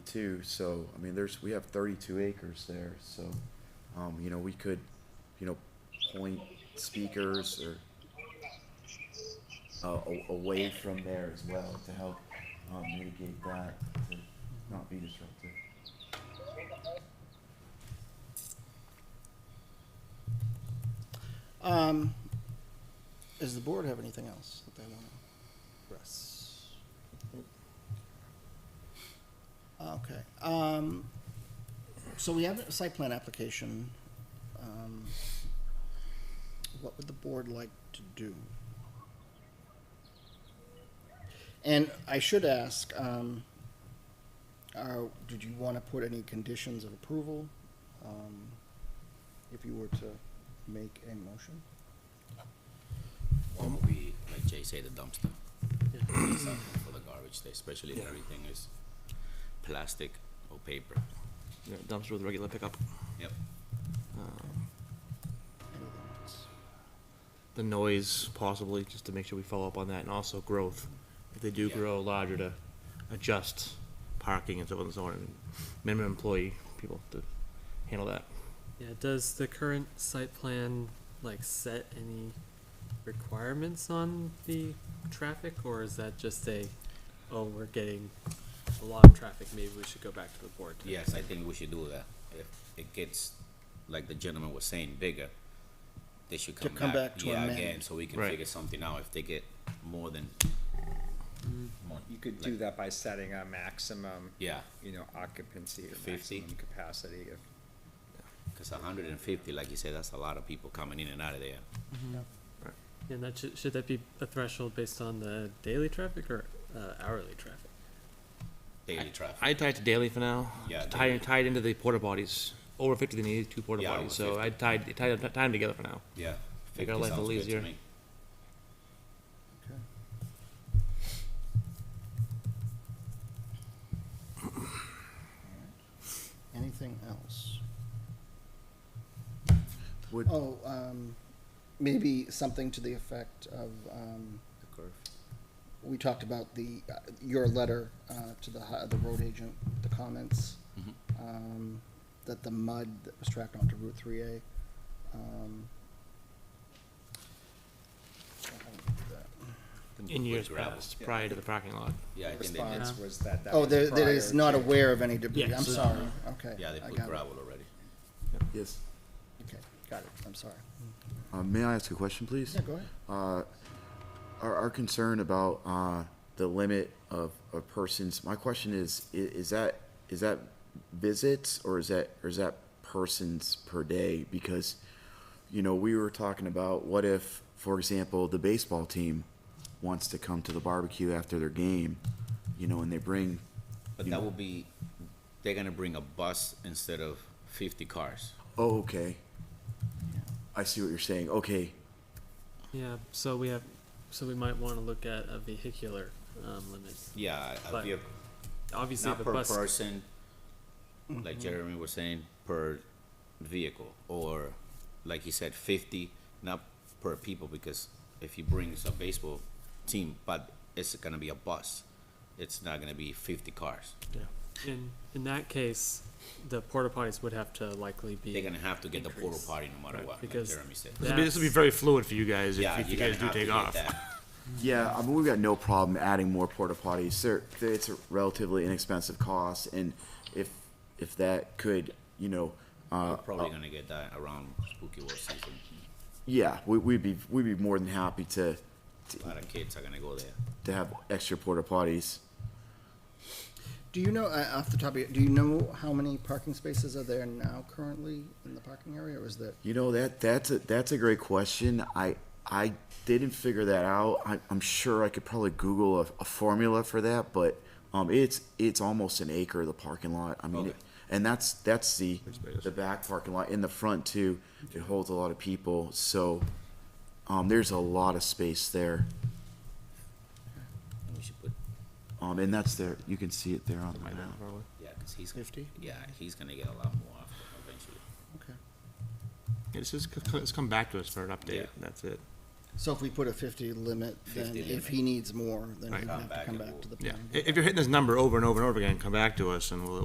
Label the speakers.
Speaker 1: too, so, I mean, there's, we have thirty-two acres there, so, um, you know, we could, you know, point speakers or uh, a- away from there as well to help, um, mitigate that, to not be disruptive.
Speaker 2: Um, does the board have anything else that they want to address? Okay, um, so we have a site plan application. Um, What would the board like to do? And I should ask, um, uh, did you want to put any conditions of approval? Um, if you were to make a motion?
Speaker 3: One would be, like Jay said, the dumpster. It's not For the garbage there, especially if everything is plastic or paper.
Speaker 4: you know, dumpster with regular pickup.
Speaker 3: Yep.
Speaker 4: Um,
Speaker 2: Anything else?
Speaker 4: the noise possibly, just to make sure we follow up on that, and also growth. If they do
Speaker 3: Yeah.
Speaker 4: grow larger, to adjust parking and so on and so on, and minimum employee people to handle that.
Speaker 5: Yeah, does the current site plan like set any requirements on the traffic or is that just a, oh, we're getting a lot of traffic, maybe we should go back to the board? to-"
Speaker 3: Yes, I think we should do that. If it gets, like the gentleman was saying, bigger, they should
Speaker 2: To
Speaker 3: come back.
Speaker 2: come back to
Speaker 3: Yeah,
Speaker 2: amend.
Speaker 3: again, so we can
Speaker 4: Right.
Speaker 3: figure something out if they get more than.
Speaker 2: Mm.
Speaker 3: more-
Speaker 6: You could do that by setting a maximum,
Speaker 3: Yeah,
Speaker 6: you know, occupancy or
Speaker 3: 50?
Speaker 6: maximum capacity of
Speaker 3: cause hundred and fifty, like you said, that's a lot of people coming in and out of there.
Speaker 5: And that should, should that be a threshold based on the daily traffic or uh, hourly traffic?
Speaker 3: Daily traffic,
Speaker 4: I tie it to daily for now.
Speaker 3: Yeah,
Speaker 4: Tie,
Speaker 3: daily.
Speaker 4: tied into the porta potties. Over fifty, they need two porta
Speaker 3: Yeah, over
Speaker 4: potties, so
Speaker 3: 50.
Speaker 4: I tied, tied, tied them together for now.
Speaker 3: yeah.
Speaker 4: Make
Speaker 3: 50
Speaker 4: our life a
Speaker 3: sounds
Speaker 4: little
Speaker 3: good to
Speaker 4: easier.
Speaker 3: me.
Speaker 2: Okay. Anything else?
Speaker 1: Would,
Speaker 2: Oh, um, maybe something to the effect of, um,
Speaker 3: The curve.
Speaker 2: we talked about the, uh, your letter, uh, to the, hi- the road agent, the comments.
Speaker 3: Mhm.
Speaker 2: Um, that the mud that was tracked onto Route three A, um.
Speaker 4: In
Speaker 3: With
Speaker 4: years
Speaker 3: gravel.
Speaker 4: past, prior to the parking lot.
Speaker 3: Yeah, I think they did,
Speaker 6: response was that that
Speaker 2: Oh,
Speaker 6: was
Speaker 2: there, that is
Speaker 6: prior
Speaker 2: not
Speaker 6: to-
Speaker 2: aware of any debris,
Speaker 5: Yeah,
Speaker 2: I'm
Speaker 5: so-
Speaker 2: sorry, okay.
Speaker 3: yeah, they
Speaker 2: I
Speaker 3: put
Speaker 2: got it.
Speaker 3: gravel already.
Speaker 1: yes,
Speaker 2: Okay, got it, I'm sorry.
Speaker 1: uh, may I ask a question, please?
Speaker 2: Yeah, go ahead.
Speaker 1: uh, our, our concern about uh, the limit of, of persons. My question is, i- is that is that visits or is that or is that persons per day? Because you know we were talking about what if, for example, the baseball team wants to come to the barbecue after their game, you know, and they bring
Speaker 3: But
Speaker 1: you
Speaker 3: that
Speaker 1: know-
Speaker 3: will be, they're gonna bring a bus instead of fifty cars.
Speaker 1: Oh, okay. I see what you're saying. Okay,
Speaker 5: Yeah, so we have, so we might wanna look at a vehicular, um, limit.
Speaker 3: Yeah, I-
Speaker 5: But
Speaker 3: if you have-
Speaker 5: Obviously, if
Speaker 3: not
Speaker 5: a
Speaker 3: per
Speaker 5: bus.
Speaker 3: person, like Jeremy was saying, per vehicle, or like he said, fifty, not per people, because if he brings a baseball team, but it's gonna be a bus, it's not gonna be fifty cars.
Speaker 5: In, in that case, the porta potties would have to likely be.
Speaker 3: They're gonna have to get the porta
Speaker 5: Increase.
Speaker 3: potty no matter what, like
Speaker 5: because
Speaker 3: Jeremy said.
Speaker 4: This will be, this will be
Speaker 5: That's-
Speaker 4: very fluid for you guys
Speaker 3: Yeah,
Speaker 4: if you
Speaker 3: you're gonna
Speaker 4: guys do
Speaker 3: have to
Speaker 4: take
Speaker 3: get
Speaker 4: off.
Speaker 3: that.
Speaker 1: Yeah, I mean, we've got no problem adding more porta potties. They're, they're- it's a relatively inexpensive cost, and if if that could, you know, uh,
Speaker 3: We're probably gonna get that around spooky world season.
Speaker 1: yeah, we, we'd be we'd be more than happy to
Speaker 3: A lot of kids are gonna go there.
Speaker 1: to have extra porta potties.
Speaker 2: Do you know, uh, off the top of your, do you know how many parking spaces are there now currently in the parking area, or is that?
Speaker 1: You know that that's a that's a great question. I I didn't figure that out. I, I'm sure I could probably Google a, a formula for that, but um, it's it's almost an acre of the parking lot. I mean,
Speaker 3: Okay.
Speaker 1: it, and that's that's the
Speaker 4: space.
Speaker 1: the back parking lot in the front too. It holds a lot of people, so um, there's a lot of space there.
Speaker 3: We should put,
Speaker 1: Um, and that's there. You can see it there on the
Speaker 4: Might
Speaker 1: map.
Speaker 4: not, probably.
Speaker 3: yeah, cause he's,
Speaker 2: 50?
Speaker 3: yeah, he's gonna get a lot more after eventually.
Speaker 2: Okay.
Speaker 4: It's just, c- c- it's come back to us for an
Speaker 3: Yeah.
Speaker 4: update, and that's it.
Speaker 2: So if we put a fifty limit, then
Speaker 3: 50
Speaker 2: if
Speaker 3: limit.
Speaker 2: he needs more, then he
Speaker 4: Right.
Speaker 2: would
Speaker 3: Come
Speaker 2: have to
Speaker 3: back
Speaker 2: come
Speaker 3: and
Speaker 2: back to the
Speaker 4: Yeah,
Speaker 2: planning board.
Speaker 4: if you're hitting this number over and over and over again, come back to us and we'll,